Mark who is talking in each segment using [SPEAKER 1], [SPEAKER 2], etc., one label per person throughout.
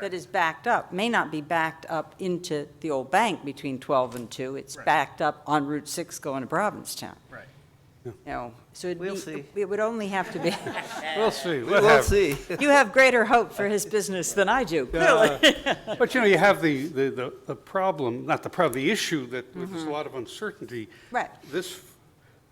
[SPEAKER 1] that is backed up may not be backed up into the old bank between 12 and 2. It's
[SPEAKER 2] Right.
[SPEAKER 1] backed up on Route 6 going to Provincetown,
[SPEAKER 2] Right.
[SPEAKER 1] you know, so it'd be.
[SPEAKER 3] We'll see.
[SPEAKER 1] It would only have to be,
[SPEAKER 4] We'll see.
[SPEAKER 3] We will see.
[SPEAKER 1] you have greater hope for his business than I do, clearly.
[SPEAKER 4] But you know, you have the, the, the- the problem, not the problem, the issue that there's a lot of uncertainty.
[SPEAKER 1] Right.
[SPEAKER 4] This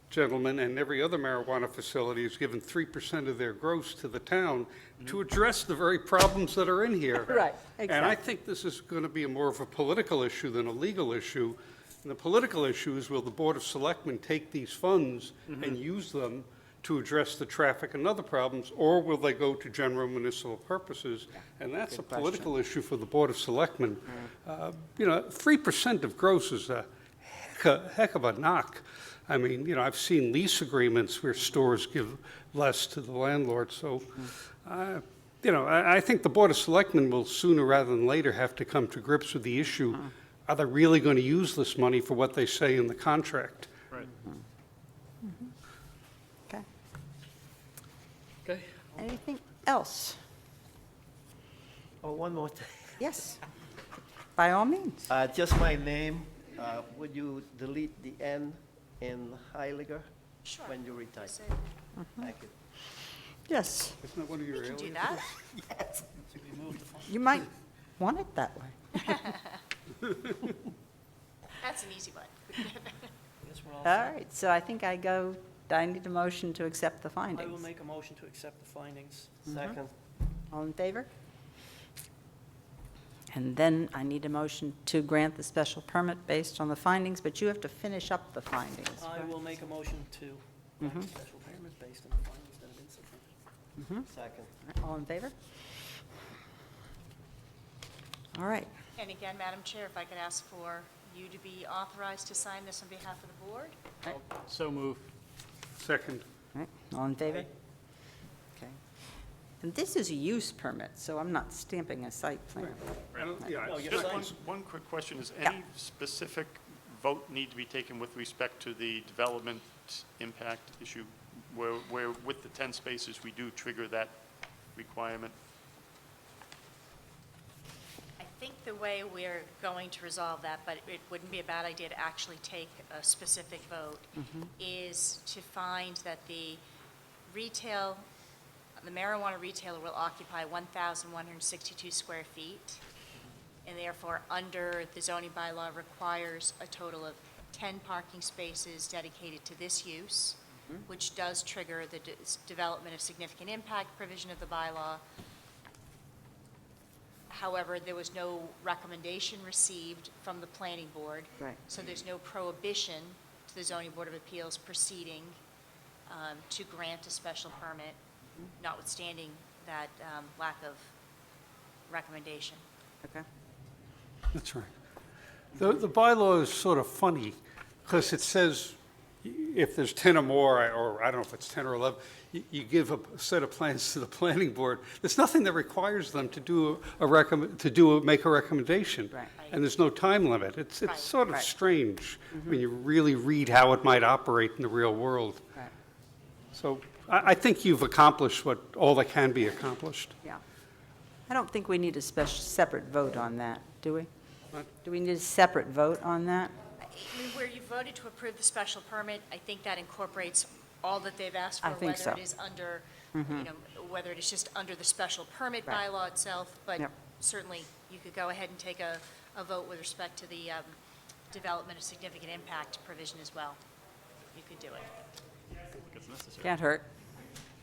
[SPEAKER 4] gentleman and every other marijuana facility has given 3% of their gross to the town to address the very problems that are in here.
[SPEAKER 1] Right,
[SPEAKER 4] And I
[SPEAKER 1] exactly.
[SPEAKER 4] think this is going to be a more of a political issue than a legal issue. And the political issue is will the Board of Selectmen take these funds
[SPEAKER 1] Mm-hmm.
[SPEAKER 4] and use them to address the traffic and other problems, or will they go to general municipal purposes? And that's a political issue for the Board of Selectmen.
[SPEAKER 1] Mm-hmm.
[SPEAKER 4] Uh, You know, 3% of gross is a heck of- heck of a knock. I mean, you know, I've seen lease agreements where stores give less to the landlord, so, uh, you know, I, I think the Board of Selectmen will sooner rather than later have to come to grips with the issue. Are they really going to use this money for what they say in the contract?
[SPEAKER 2] Right.
[SPEAKER 1] Okay.
[SPEAKER 2] Okay.
[SPEAKER 1] Anything else?
[SPEAKER 3] Oh, one more thing.
[SPEAKER 1] Yes, by all means.
[SPEAKER 3] Uh, just my name. Uh, would you delete the N in Heiliger? Sure. When you retire? Thank you.
[SPEAKER 1] Yes,
[SPEAKER 4] Isn't that one of your
[SPEAKER 5] You can do
[SPEAKER 4] aliases?
[SPEAKER 5] that.
[SPEAKER 1] you might want it that way.
[SPEAKER 5] That's an easy one.
[SPEAKER 1] All right, so I think I go, I need a motion to accept the
[SPEAKER 6] I will
[SPEAKER 1] findings.
[SPEAKER 6] make a motion to accept the findings.
[SPEAKER 3] Second,
[SPEAKER 1] All in favor? And then I need a motion to grant the special permit based on the findings, but you have to finish up the findings.
[SPEAKER 6] I will make a motion to
[SPEAKER 3] Mm-hmm.
[SPEAKER 6] grant a special permit based on the findings that have been submitted.
[SPEAKER 3] Mm-hmm. second.
[SPEAKER 1] All in favor? All right,
[SPEAKER 5] And again, Madam Chair, if I could ask for you to be authorized to sign this on behalf of the board?
[SPEAKER 2] So move.
[SPEAKER 4] Second.
[SPEAKER 1] all right, all in favor? Okay. And this is a use permit, so I'm not stamping a site plan.
[SPEAKER 4] I don't- yeah,
[SPEAKER 6] No,
[SPEAKER 4] it's
[SPEAKER 6] you're
[SPEAKER 4] not-
[SPEAKER 6] fine.
[SPEAKER 7] Just one, one quick question, is
[SPEAKER 1] Yeah.
[SPEAKER 7] any specific vote need to be taken with respect to the development impact issue? Where, where with the 10 spaces, we do trigger that requirement?
[SPEAKER 5] I think the way we're going to resolve that, but it wouldn't be a bad idea to actually take a specific vote, is to find that the retail, the marijuana retailer will occupy 1,162 square feet, and therefore, under the zoning bylaw, requires a total of 10 parking spaces dedicated to this use, which does trigger the de- development of significant impact provision of the bylaw, However, there was no recommendation received from the planning board.
[SPEAKER 1] Right.
[SPEAKER 5] So there's no prohibition to the zoning board of appeals proceeding um, to grant a special permit, notwithstanding that um, lack of recommendation.
[SPEAKER 1] Okay.
[SPEAKER 4] That's right. The, the bylaw is sort of funny, because it says if there's 10 or more, I- or I don't know if it's 10 or 11, you, you give a set of plans to the planning board. There's nothing that requires them to do a recommend, to do, a- make a recommendation.
[SPEAKER 1] Right.
[SPEAKER 4] And there's no time limit. It's,
[SPEAKER 5] Right.
[SPEAKER 4] it's sort of
[SPEAKER 1] Right. Mm-hmm.
[SPEAKER 4] strange when you really read how it might operate in the real world.
[SPEAKER 1] Right,
[SPEAKER 4] So I, I think you've accomplished what, all that can be accomplished.
[SPEAKER 1] yeah. I don't think we need a special, separate vote on that, do we? Do we need a separate vote on that?
[SPEAKER 5] I mean, Where you voted to approve the special permit, I think that incorporates all that they've asked for.
[SPEAKER 1] I think so. Mm-hmm.
[SPEAKER 5] Whether it is under, you know, whether it is just under the special permit
[SPEAKER 1] Right.
[SPEAKER 5] bylaw itself, but
[SPEAKER 1] Yep.
[SPEAKER 5] certainly you could go ahead and take a, a vote with respect to the um, development of significant impact provision as well. You could do it.
[SPEAKER 1] Can't hurt.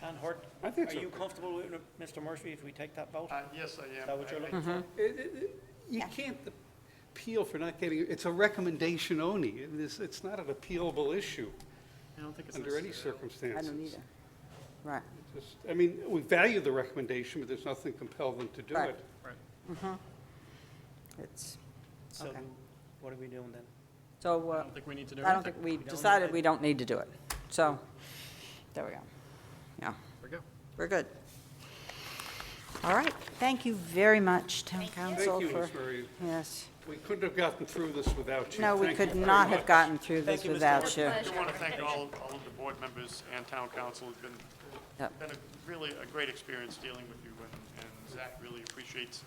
[SPEAKER 6] Con Hort,
[SPEAKER 4] I think so.
[SPEAKER 6] are you comfortable with Mr. Murphy if we take that vote?
[SPEAKER 7] Uh, yes, I
[SPEAKER 6] Is
[SPEAKER 7] am.
[SPEAKER 6] that what you're
[SPEAKER 7] I-
[SPEAKER 3] Mm-hmm.
[SPEAKER 6] looking for?
[SPEAKER 4] It- it- it- You can't appeal for not getting, it's a recommendation only. It is- It's, not an appealable issue
[SPEAKER 2] I don't think it's
[SPEAKER 4] under any
[SPEAKER 1] I
[SPEAKER 2] necessary.
[SPEAKER 4] circumstances.
[SPEAKER 1] don't either. Right,
[SPEAKER 4] Just- I mean, we value the recommendation, but there's nothing compel them to do
[SPEAKER 1] Right.
[SPEAKER 4] it.
[SPEAKER 1] it's,
[SPEAKER 6] So
[SPEAKER 1] Okay.
[SPEAKER 6] what are we doing then?
[SPEAKER 1] so,
[SPEAKER 2] I
[SPEAKER 1] uh,
[SPEAKER 2] don't think we need to do
[SPEAKER 1] I don't
[SPEAKER 2] anything.
[SPEAKER 1] think, we decided we don't need to do it. So, there we go. Yeah,
[SPEAKER 2] There we go.
[SPEAKER 1] we're good. All right, thank you very much, Town
[SPEAKER 5] Thank you.
[SPEAKER 1] Council,
[SPEAKER 4] Thank you,
[SPEAKER 1] for,
[SPEAKER 4] Ms. Murray.
[SPEAKER 1] yes.
[SPEAKER 4] We couldn't have gotten through this without you.
[SPEAKER 1] No, we
[SPEAKER 4] Thank you
[SPEAKER 1] could
[SPEAKER 4] very
[SPEAKER 1] not
[SPEAKER 4] much.
[SPEAKER 1] have gotten through
[SPEAKER 6] Thank
[SPEAKER 1] this
[SPEAKER 6] you, Mr.
[SPEAKER 1] without you.
[SPEAKER 7] I do want to thank all, all of the board members and town council. It's been,
[SPEAKER 1] Yep.
[SPEAKER 7] been a- really a great experience dealing with you, and- and Zach really appreciates